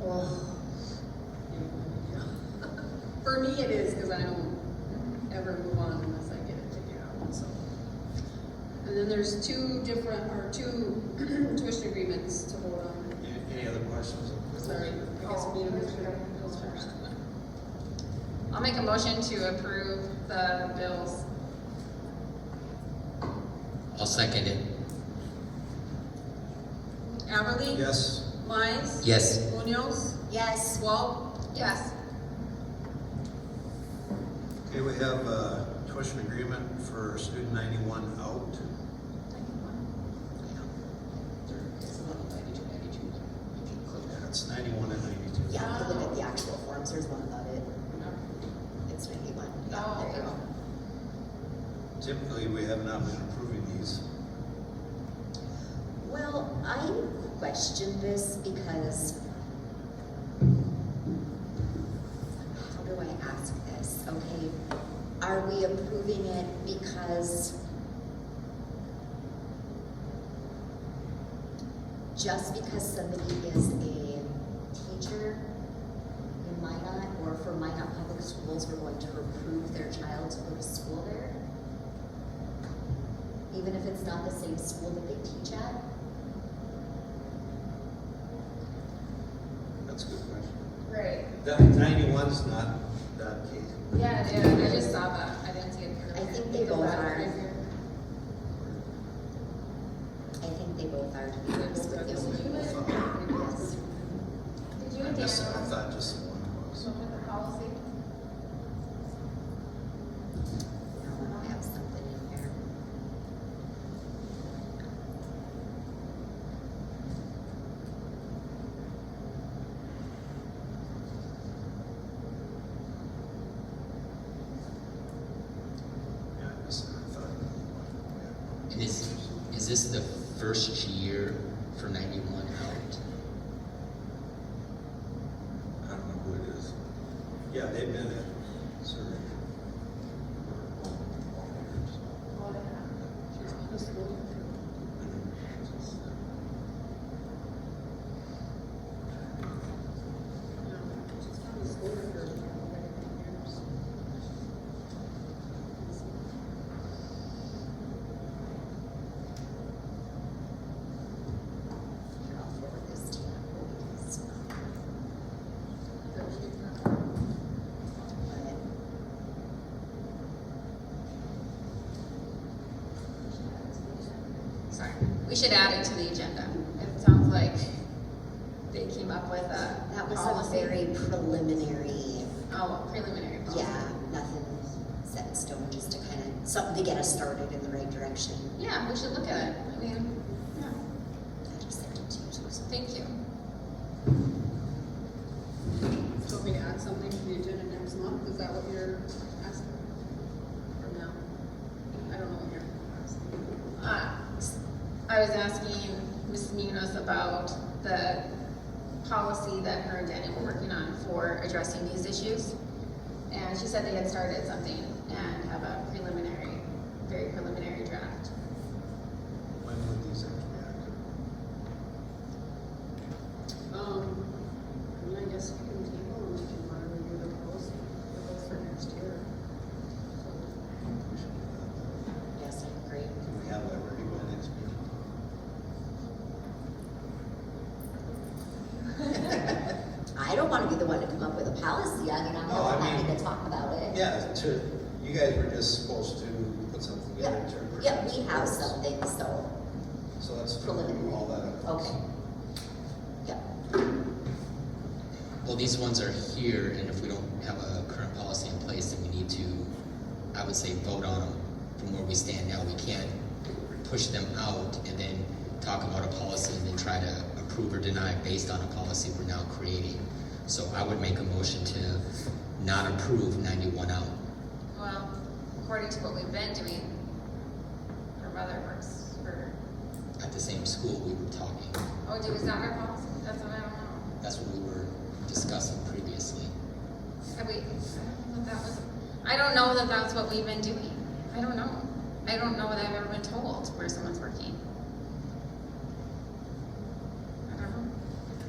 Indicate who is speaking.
Speaker 1: Well, For me, it is, because I don't ever move on unless I get it figured out, so. And then there's two different, or two tuition agreements to vote on.
Speaker 2: Any- Any other questions?
Speaker 1: Sorry, I guess we need to move those first.
Speaker 3: I'll make a motion to approve the bills.
Speaker 4: I'll second it.
Speaker 1: Everly?
Speaker 2: Yes,
Speaker 1: Mize?
Speaker 4: Yes.
Speaker 1: Munoz? Yes. Swal?
Speaker 3: Yes.
Speaker 2: okay, we have a tuition agreement for student ninety-one out. Yeah, it's ninety-one and ninety-two.
Speaker 5: Yeah, I'm looking at the actual forms, there's one about it, it's ninety-one. Yeah, there you go.
Speaker 2: Typically, we have not been approving these.
Speaker 5: Well, I question this because how do I ask this? Okay, are we approving it because just because somebody is a teacher in Minot or for Minot Public Schools, we're going to approve their child to go to school there? even if it's not the same school that they teach at?
Speaker 2: That's a good question.
Speaker 3: Right.
Speaker 2: That ninety-one's not that case.
Speaker 3: Yeah, it is. I just saw that. I didn't see it.
Speaker 5: I think they both are. I think they both are, to be honest with you. Yes.
Speaker 3: Did you
Speaker 2: I
Speaker 3: and Dan
Speaker 2: missed it, I
Speaker 3: look
Speaker 2: thought just the one was.
Speaker 3: at the policy?
Speaker 5: No, um, I have something in there.
Speaker 2: Yeah, I missed it, I thought. we
Speaker 4: And is, is this the first year for ninety-one out?
Speaker 2: had- I don't know who it is. Yeah, they've been at Surrey.
Speaker 5: Here, I'll forward this to you. because, um,
Speaker 3: Sorry. We should add it to the agenda. It sounds like they came up with a
Speaker 5: but That was a
Speaker 3: policy.
Speaker 5: very preliminary,
Speaker 3: Oh, preliminary policy.
Speaker 5: yeah, nothing set in stone, just to kind of, something to get us started in the right direction.
Speaker 3: Yeah, we should look at it. I mean, yeah.
Speaker 5: I just sent it to you, so-
Speaker 3: Thank you.
Speaker 1: So if we add something to the agenda next month, is that what you're asking? Or no? I don't know what you're asking.
Speaker 3: Uh, I was asking Mrs. Munoz about the policy that her and Danny were working on for addressing these issues. And she said they had started something and have a preliminary, very preliminary draft.
Speaker 2: When would these actually be active?
Speaker 1: Um, I mean, I guess we can table and we can want to review the policy for those for next year.
Speaker 2: We should do
Speaker 5: Yes, I agree.
Speaker 2: that. Can we have that ready by next meeting?
Speaker 5: I don't want to be the one to come up with a policy. I mean, I'm
Speaker 2: No, I
Speaker 5: more than happy
Speaker 2: mean-
Speaker 5: to talk about it.
Speaker 2: Yeah, to, you guys were just supposed to put something together in terms of.
Speaker 5: Yeah, we have something, so,
Speaker 2: So let's do
Speaker 5: preliminary.
Speaker 2: all that. at once.
Speaker 5: okay. Yep,
Speaker 4: Well, these ones are here, and if we don't have a current policy in place, then we need to, I would say, vote on them from where we stand now. We can't push them out and then talk about a policy and then try to approve or deny based on a policy we're now creating. So I would make a motion to not approve ninety-one out.
Speaker 3: Well, according to what we've been doing, her mother works for,
Speaker 4: At the same school, we were talking,
Speaker 3: oh, dude, is that our policy? That's what I don't know.
Speaker 4: that's what we were discussing previously.
Speaker 3: Have we, I don't know if that was, I don't know that that's what we've been doing. I don't know. I don't know that I've ever been told where someone's working.